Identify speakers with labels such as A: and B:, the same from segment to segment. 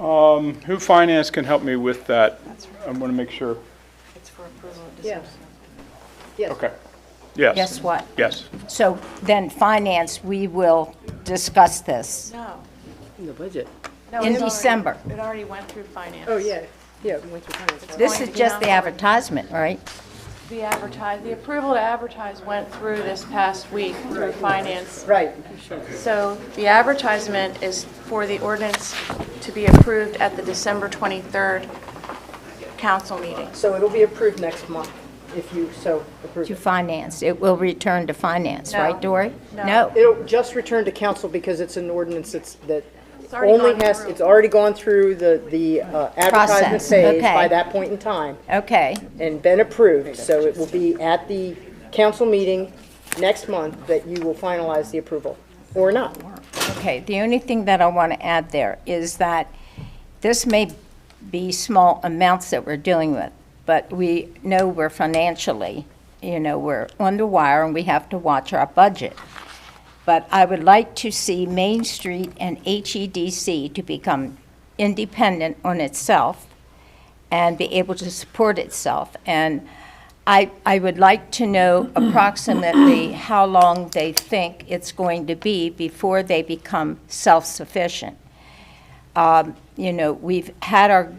A: Um, Who Finance can help me with that?
B: That's right.
A: I want to make sure.
B: It's for approval of
C: Yeah.
B: dispersal.
C: Yes.
A: Okay. Yes.
D: Guess what?
A: Yes.
D: So then finance, we will discuss this
B: No.
C: The budget.
B: no,
D: in
B: it's already-
D: December.
B: It already went through finance.
C: Oh, yeah, yeah, we went through finance. right?
D: This is just the advertisement, right?
B: The advertise, the approval to advertise went through this past week through finance.
C: Right.
B: So the advertisement is for the ordinance to be approved at the December 23rd council meeting.
C: So it'll be approved next month, if you so approve
D: To
C: it.
D: finance. It will return to finance,
B: No.
D: right, Dory?
B: No.
C: It'll just return to council because it's an ordinance that's, that
B: already
C: only
B: gone
C: has,
B: through.
C: it's already gone through the, the uh, advertisement
D: Process,
C: phase by
D: okay.
C: that point in time
D: Okay,
C: and been approved. So it will be at the council meeting next month that you will finalize the approval, or not.
D: okay. The only thing that I want to add there is that this may be small amounts that we're dealing with, but we know we're financially, you know, we're on the wire and we have to watch our budget. But I would like to see Main Street and HEDC to become independent on itself and be able to support itself. And I, I would like to know approximately how long they think it's going to be before they become self-sufficient. Um, You know, we've had our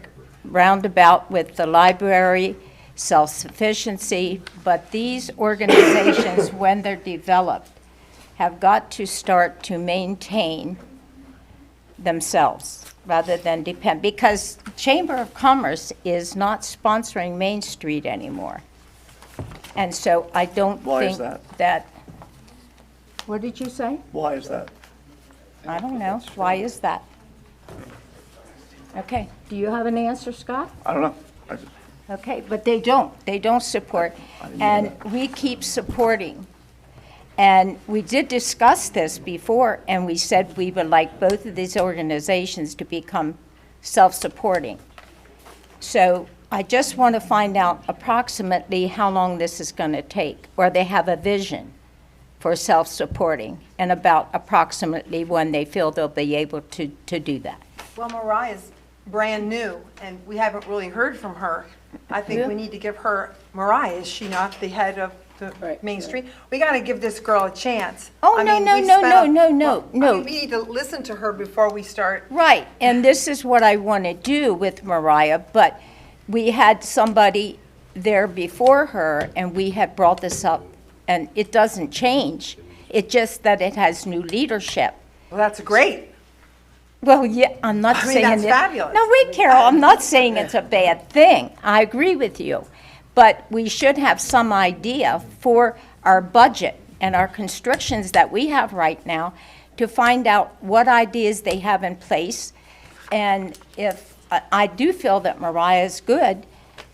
D: roundabout with the library, self-sufficiency, but these organizations, when they're developed, have got to start to maintain themselves rather than depend, because Chamber of Commerce is not sponsoring Main Street anymore. And so I don't think.
E: Why is that?
D: what did you say?
E: Why is that?
D: I don't know. Why is that? Okay, do you have an answer, Scott?
E: I don't know. I just-
D: Okay, but they don't, they don't support, and we keep supporting. And we did discuss this before, and we said we would like both of these organizations to become self-supporting. So I just want to find out approximately how long this is going to take, or they have a vision for self-supporting, and about approximately when they feel they'll be able to, to do that.
F: Well, Mariah's brand new, and we haven't really heard from her. I think we need to give her, Mariah, is she not the head of the
C: Right.
F: Main Street? We got to give this girl a chance.
D: Oh,
F: I
D: no,
F: mean,
D: no,
F: we've
D: no,
F: spent a-
D: no, no, no,
F: I
D: no.
F: mean, We need to listen to her before we start.
D: Right, and this is what I want to do with Mariah, but we had somebody there before her, and we had brought this up, and it doesn't change. It just that it has new leadership.
F: Well, that's great.
D: Well, yeah, I'm not
F: I mean,
D: saying.
F: that's
D: it-
F: fabulous.
D: No, wait, Carol, I'm not saying it's a bad thing. I agree with you. But we should have some idea for our budget and our constrictions that we have right now to find out what ideas they have in place. And if, I- I do feel that Mariah's good,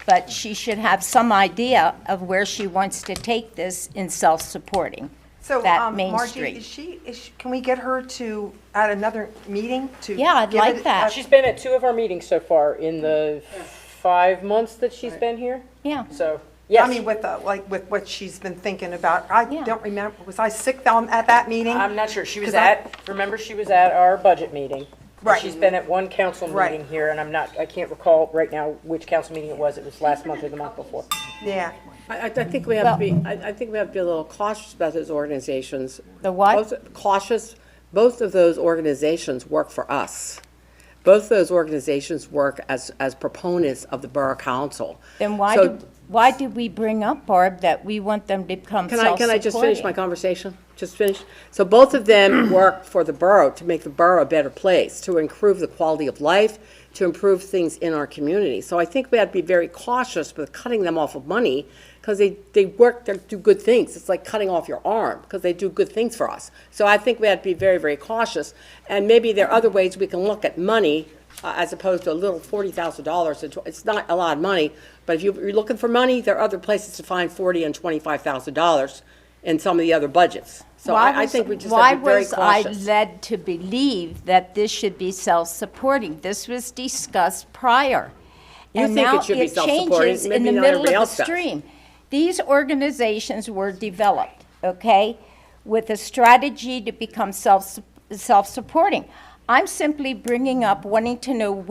D: but she should have some idea of where she wants to take this in self-supporting,
F: So,
D: that
F: um,
D: Main
F: Margie, is
D: Street.
F: she, is she- can we get her to, at another meeting to?
D: Yeah, I'd
F: give
D: like
F: it a-
D: that.
C: She's been at two of our meetings so far in the five months that she's been here.
D: Yeah.
C: So,
F: I
C: yes.
F: mean, with, the- like, with what she's been thinking about. I
D: Yeah.
F: don't remember, was I sick um, at that meeting?
C: I'm not sure. She was
F: 'Cause I-
C: at, remember, she was at our budget meeting. and
F: Right.
C: She's been at one council
F: Right.
C: meeting here, and I'm not, I can't recall right now which council meeting it was. It was last month or the month before.
F: Yeah.
G: I, I- I think we have to be, I, I think we have to be a little cautious about those organizations.
D: The what?
G: Both- Cautious, both of those organizations work for us. Both of those organizations work as, as proponents of the Borough Council.
D: Then why,
G: So-
D: did- why did we bring up, Barb, that we want them to become
G: Can I, can I just finish my
D: self-supporting?
G: conversation? Just finish? So both of them work for the borough to make the borough a better place, to improve the quality of life, to improve things in our community. So I think we have to be very cautious with cutting them off of money because they, they work, they do good things. It's like cutting off your arm because they do good things for us. So I think we have to be very, very cautious. And maybe there are other ways we can look at money uh, as opposed to a little forty thousand dollars, it's not a lot of money, but if you- you're looking for money, there are other places to find forty and twenty-five thousand dollars in some of the other budgets. So
D: Why
G: I, I
D: was-
G: think we just have to be very
D: Why was I
G: cautious.
D: led to believe that this should be self-supporting? This was discussed prior.
G: You
D: and
G: think it
D: now
G: should be self-supporting,
D: changes in
G: maybe
D: the
G: not
D: middle
G: everybody
D: of the
G: else does.
D: stream. These organizations were developed, okay, with a strategy to become self, self-supporting. I'm simply bringing up wanting to know